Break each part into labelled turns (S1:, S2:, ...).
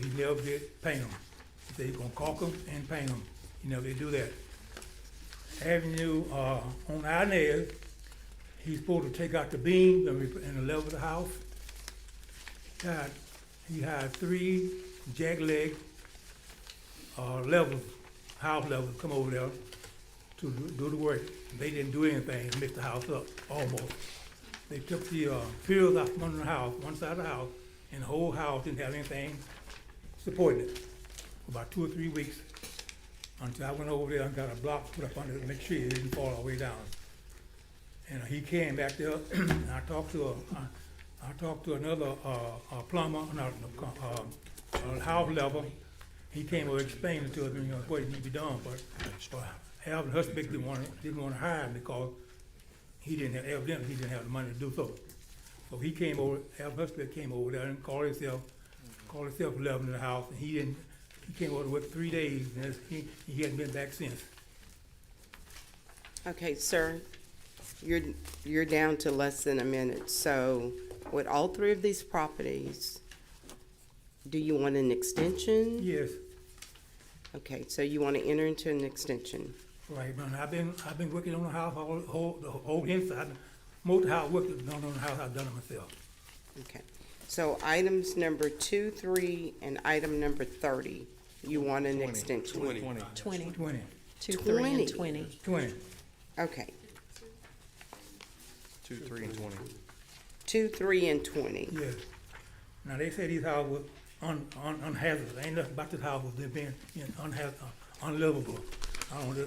S1: he never did paint them. They gonna caulk them and paint them, he never did do that. Avenue, uh, on Inez, he's supposed to take out the beams and re- and level the house. God, he hired three jackleg, uh, level, house levels come over there to do- do the work. They didn't do anything, to mix the house up, almost. They took the, uh, pills out from under the house, one side of the house, and the whole house didn't have anything supporting it for about two or three weeks. Until I went over there and got a block put up under it to make sure it didn't fall all the way down. And uh, he came back there, and I talked to, a- I I talked to another uh, a plumber, not, uh, a house level. He came over explaining to us, you know, what needed to be done, but, but Alvin Husband didn't want, didn't want to hire him because he didn't have, evidently, he didn't have the money to do so. So he came over, Alvin Husband came over there and called himself, called himself eleven in the house, and he didn't, he came over with three days, and it's- he, he hasn't been back since.
S2: Okay, sir, you're, you're down to less than a minute, so with all three of these properties, do you want an extension?
S1: Yes,
S2: Okay, so you want to enter into an extension?
S1: right, man, I've been, I've been working on the house, all, whole, the whole inside, most of the house, working, done on the house, I've done it myself.
S2: Okay, so items number two, three, and item number thirty, you want an extension?
S3: Twenty.
S4: 20,
S1: Twenty.
S4: 2, 3,
S2: 20.
S4: and 20.
S1: Twenty.
S2: Okay,
S3: Two, three, and twenty.
S2: two, three, and twenty.
S1: Yes. Now, they say these houses was un, un, unhazardous, ain't nothing about this house was being, you know, unhaz, unlivable. I don't, know.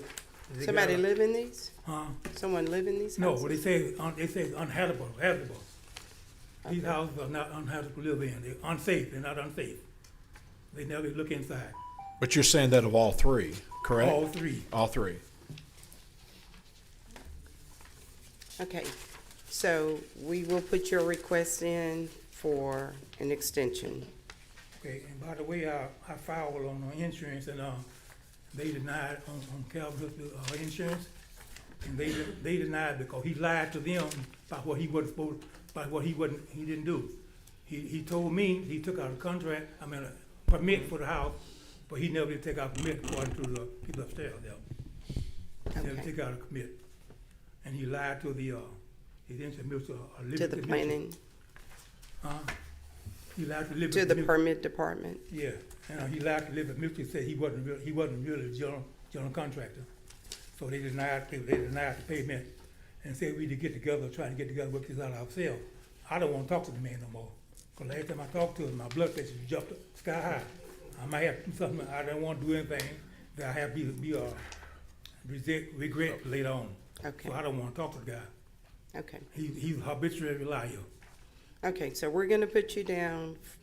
S1: They got
S2: Somebody
S1: a-
S2: live in these?
S1: Huh?
S2: Someone live in these
S1: No,
S2: houses?
S1: what they say, is un- they say is unhabitable, habitable. These houses are not unhabitable to live in, they're unsafe, they're not unsafe. They never look inside,
S5: But you're saying that of all three, correct?
S1: all three.
S5: All three.
S2: Okay, so we will put your request in for an extension.
S1: Okay, and by the way, I, I filed on the insurance and, uh, they denied on, on Calvin, uh, insurance. And they, they denied because he lied to them about what he wasn't supposed, about what he wasn't, he didn't do. He, he told me he took out a contract, I mean, a permit for the house, but he never did take out a permit according to the people upstairs there. He Never
S2: Okay.
S1: took out a permit. And he lied to the, uh, he didn't submit to a liberty.
S2: To the
S1: Mutual.
S2: planning,
S1: He lied to liberty.
S2: to the
S1: Mutual.
S2: permit department.
S1: Yeah, and uh, he lied to Liberty Mutual, said he wasn't real, he wasn't really a general, general contractor. So they denied, they denied the payment and said we need to get together, try to get together, work this out ourselves. I don't wanna talk to the man no more, cause last time I talked to him, my blood pressure jumped up sky high. I might have to do something, I don't wanna do anything that I have be, be, uh, regret, regret later on.
S2: Okay.
S1: So I don't wanna talk to the guy.
S2: Okay,
S1: He, he's a habitual liar.
S2: okay, so we're gonna put you down f-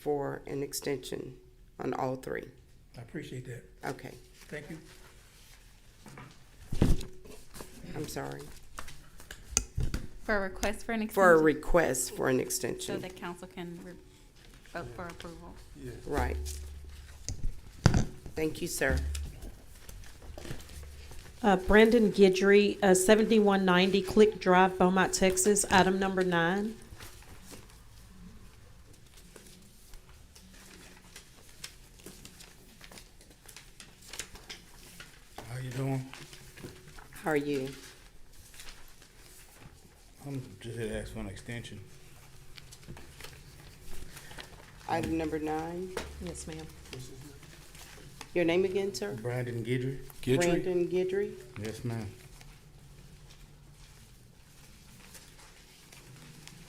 S2: for an extension on all three.
S1: I appreciate that.
S2: Okay,
S1: Thank you.
S2: I'm sorry.
S6: For a request for an extension?
S2: For a request for an
S6: So
S2: extension,
S6: the council can re- vote for approval.
S2: right. Thank you, sir.
S4: Uh, Brandon Gidry, uh, 7190 Click Drive, Beaumont, Texas, item number nine.
S7: How you doing?
S2: How are you?
S7: I'm just here to ask for an extension.
S2: Item number nine,
S4: Yes, ma'am.
S2: your name again, sir?
S7: Brandon Gidry?
S5: Gidry?
S2: Brandon Gidry?
S7: Yes, ma'am.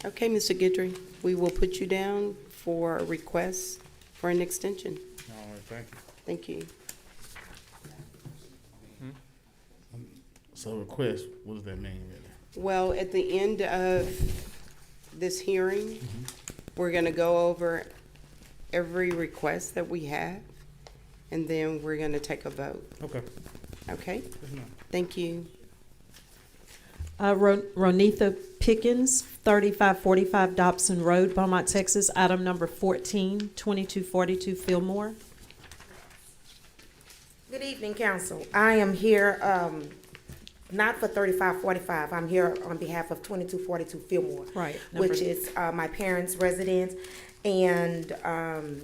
S2: Okay, Mr. Gidry, we will put you down for a request for an extension.
S7: All right, thank you.
S2: Thank you.
S7: So request, what does that mean really?
S2: Well, at the end of this hearing,
S7: Mm-hmm.
S2: we're gonna go over every request that we have, and then we're gonna take a vote,
S7: Okay.
S2: okay?
S7: Yes, ma'am.
S2: Thank you.
S4: Uh, Ro- Ronitha Pickens, 3545 Dobson Road, Beaumont, Texas, item number 14, 2242 Fillmore.
S8: Good evening, council. I am here, um, not for thirty-five forty-five, I'm here on behalf of twenty-two forty-two Fillmore.
S4: Right, number-
S8: Which is, uh, my parents' residence, and, um,